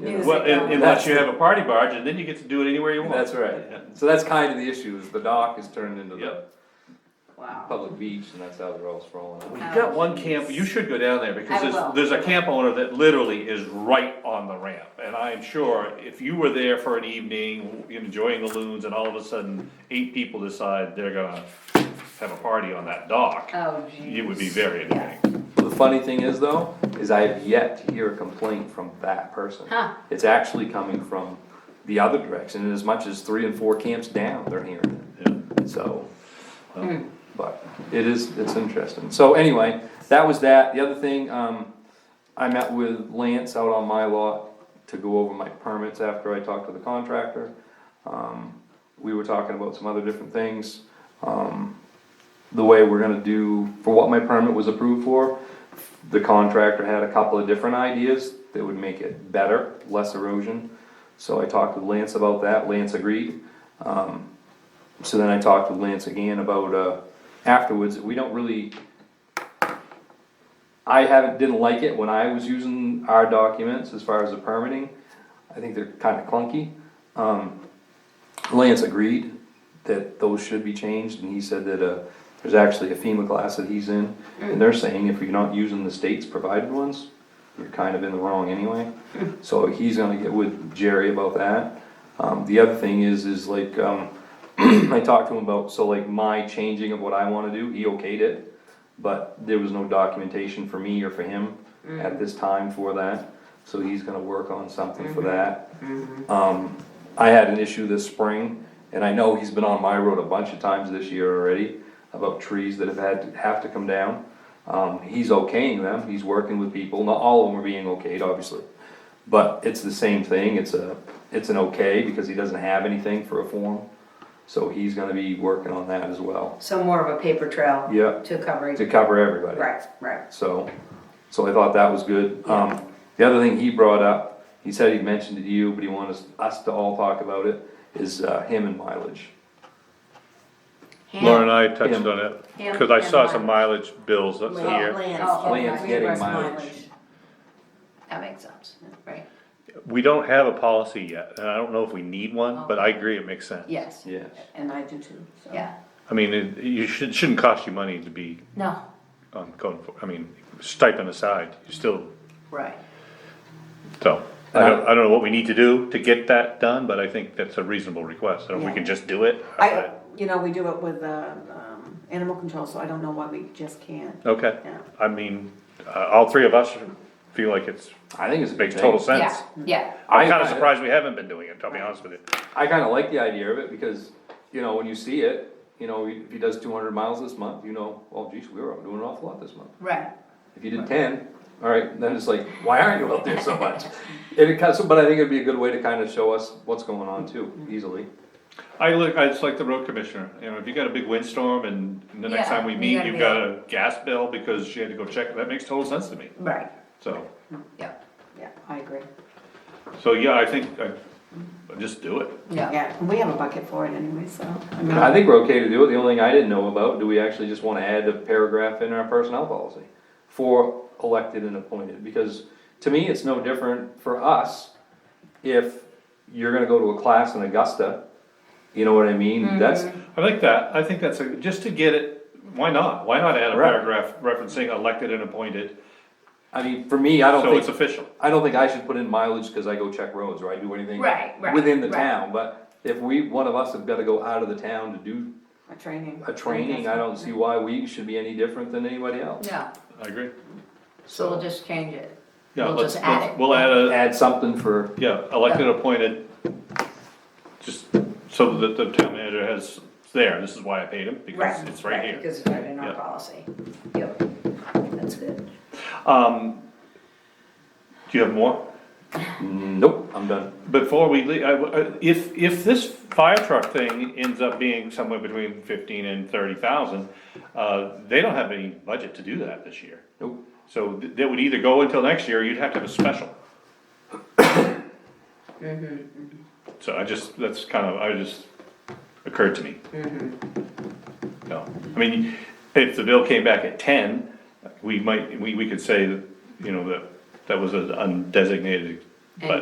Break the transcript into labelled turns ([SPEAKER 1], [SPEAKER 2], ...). [SPEAKER 1] Yeah.
[SPEAKER 2] Well,
[SPEAKER 3] Music,
[SPEAKER 2] un-
[SPEAKER 3] um,
[SPEAKER 2] unless you have a party barge, and then you get to do it anywhere you want.
[SPEAKER 1] That's
[SPEAKER 2] Yeah.
[SPEAKER 1] right. So that's kind of the issue, is the dock is turned into the
[SPEAKER 2] Yep.
[SPEAKER 3] Wow.
[SPEAKER 1] public beach, and that's how they're all sprawling out.
[SPEAKER 2] Well, you got one camp, you should go down there, because
[SPEAKER 3] I will.
[SPEAKER 2] there's, there's a camp owner that literally is right on the ramp. And I am sure if you were there for an evening, enjoying the loons, and all of a sudden, eight people decide they're gonna have a party on that dock,
[SPEAKER 3] Oh, geez.
[SPEAKER 2] it would be very entertaining.
[SPEAKER 1] The funny thing is though, is I have yet to hear a complaint from that person.
[SPEAKER 3] Huh.
[SPEAKER 1] It's actually coming from the other direction, and as much as three and four camps down, they're hearing
[SPEAKER 2] Yeah.
[SPEAKER 1] it, so. um, But it is, it's interesting, so anyway, that was that, the other thing, um, I met with Lance out on my lot to go over my permits after I talked to the contractor. Um, we were talking about some other different things, um, the way we're gonna do, for what my permit was approved for, the contractor had a couple of different ideas that would make it better, less erosion. So I talked with Lance about that, Lance agreed. Um, so then I talked with Lance again about, uh, afterwards, we don't really. I haven't, didn't like it when I was using our documents as far as the permitting, I think they're kinda clunky. Um, Lance agreed that those should be changed, and he said that, uh, there's actually a FEMA class that he's in, and they're saying if you're not using the state's provided ones, you're kind of in the wrong anyway. So he's gonna get with Jerry about that. Um, the other thing is, is like, um, I talked to him about, so like my changing of what I wanna do, he okayed it, but there was no documentation for me or for him at this time for that, so he's gonna work on something for that. Um, I had an issue this spring, and I know he's been on my road a bunch of times this year already, about trees that have had, have to come down. Um, he's okaying them, he's working with people, not all of them are being okayed, obviously. But it's the same thing, it's a, it's an okay, because he doesn't have anything for a form, so he's gonna be working on that as well.
[SPEAKER 3] So more of a paper trail.
[SPEAKER 1] Yeah.
[SPEAKER 3] To cover,
[SPEAKER 1] To cover everybody.
[SPEAKER 3] right, right.
[SPEAKER 1] So, so I thought that was good. Um, the other thing he brought up, he said he mentioned it to you, but he wanted us- us to all talk about it, is uh, him and mileage.
[SPEAKER 3] Hand-
[SPEAKER 4] Laura and I touched
[SPEAKER 1] Yeah.
[SPEAKER 4] on it,
[SPEAKER 3] Yeah.
[SPEAKER 4] cause I
[SPEAKER 3] Yeah.
[SPEAKER 4] saw some mileage bills up
[SPEAKER 3] Land-
[SPEAKER 4] here.
[SPEAKER 3] land-
[SPEAKER 5] Oh,
[SPEAKER 3] oh,
[SPEAKER 1] Land's
[SPEAKER 3] right.
[SPEAKER 1] getting
[SPEAKER 3] Reverse
[SPEAKER 1] mileage.
[SPEAKER 3] That makes sense, right,
[SPEAKER 4] We don't have a policy yet, and I don't know if we need one, but I agree it makes sense.
[SPEAKER 3] yes,
[SPEAKER 1] Yeah.
[SPEAKER 5] And I do too, so.
[SPEAKER 3] yeah,
[SPEAKER 4] I mean, it, you should, shouldn't cost you money to be
[SPEAKER 3] no,
[SPEAKER 4] on code, enfor- I mean, stipend aside, you still,
[SPEAKER 3] right.
[SPEAKER 4] so. I don't, I don't know what we need to do to get that done, but I think that's a reasonable request, I don't know if we can just do it.
[SPEAKER 5] I, you know, we do it with, uh, um, animal control, so I don't know why we just can't.
[SPEAKER 4] Okay,
[SPEAKER 5] Yeah.
[SPEAKER 4] I mean, uh, all three of us feel like it's,
[SPEAKER 1] I think it's a big
[SPEAKER 4] makes
[SPEAKER 1] thing.
[SPEAKER 4] total
[SPEAKER 3] Yeah,
[SPEAKER 4] sense.
[SPEAKER 3] yeah,
[SPEAKER 4] I'm kinda
[SPEAKER 1] I-
[SPEAKER 4] surprised we haven't been doing it, I'll be honest with you.
[SPEAKER 1] I kinda like the idea of it because, you know, when you see it, you know, if he does two hundred miles this month, you know, well, geez, we were out doing an awful lot this month.
[SPEAKER 3] right,
[SPEAKER 1] If you did ten, alright, then it's like, why aren't you out there so much? And it cuts, but I think it'd be a good way to kinda show us what's going on too,
[SPEAKER 4] Mm-hmm.
[SPEAKER 1] easily.
[SPEAKER 2] I look, I just like the road commissioner, you know, if you got a big windstorm and the next
[SPEAKER 3] Yeah,
[SPEAKER 2] time we
[SPEAKER 3] you
[SPEAKER 2] meet,
[SPEAKER 3] gotta
[SPEAKER 2] you've
[SPEAKER 3] be
[SPEAKER 2] got a gas bill because she had to go check, that makes total sense to me,
[SPEAKER 3] right,
[SPEAKER 2] so.
[SPEAKER 3] yeah,
[SPEAKER 5] Yeah, I agree.
[SPEAKER 2] So, yeah, I think, I, just do it.
[SPEAKER 3] yeah.
[SPEAKER 5] Yeah, and we have a bucket for it anyway, so. I mean,
[SPEAKER 1] I think we're okay to do it, the only thing I didn't know about, do we actually just wanna add a paragraph in our personnel policy? For elected and appointed, because to me, it's no different for us, if you're gonna go to a class in Augusta, you know what I
[SPEAKER 3] Mm-hmm.
[SPEAKER 1] mean, that's,
[SPEAKER 2] I like that, I think that's a, just to get it, why not, why not add a
[SPEAKER 1] Right.
[SPEAKER 2] paragraph referencing elected and appointed,
[SPEAKER 1] I mean, for me, I
[SPEAKER 2] so
[SPEAKER 1] don't
[SPEAKER 2] it's
[SPEAKER 1] think,
[SPEAKER 2] official.
[SPEAKER 1] I don't think I should put in mileage, cause I go check roads, or I do anything.
[SPEAKER 3] Right, right,
[SPEAKER 1] Within the
[SPEAKER 3] right.
[SPEAKER 1] town, but if we, one of us have gotta go out of the town to do
[SPEAKER 5] A training.
[SPEAKER 1] a training, I don't see why we should be any different than anybody else.
[SPEAKER 3] No,
[SPEAKER 2] I agree.
[SPEAKER 3] so we'll just change it.
[SPEAKER 2] Yeah,
[SPEAKER 3] We'll
[SPEAKER 2] let's,
[SPEAKER 3] just add
[SPEAKER 2] let's-
[SPEAKER 3] it.
[SPEAKER 2] we'll add a,
[SPEAKER 1] Add something for,
[SPEAKER 2] yeah, elected, appointed, just so that the town manager has, it's there, this is why I paid him, because it's right here.
[SPEAKER 3] Because it's right in our
[SPEAKER 2] Yeah.
[SPEAKER 3] policy, yep, that's good.
[SPEAKER 2] Um, do you have more?
[SPEAKER 1] nope, I'm done.
[SPEAKER 2] Before we leave, I w- uh, if, if this fire truck thing ends up being somewhere between fifteen and thirty thousand, uh, they don't have any budget to do that this year.
[SPEAKER 1] Nope.
[SPEAKER 2] So th- that would either go until next year, or you'd have to have a special. So I just, that's kind of, I just, occurred to me. No, I mean, if the bill came back at ten, we might, we, we could say that, you know, that, that was an undesignated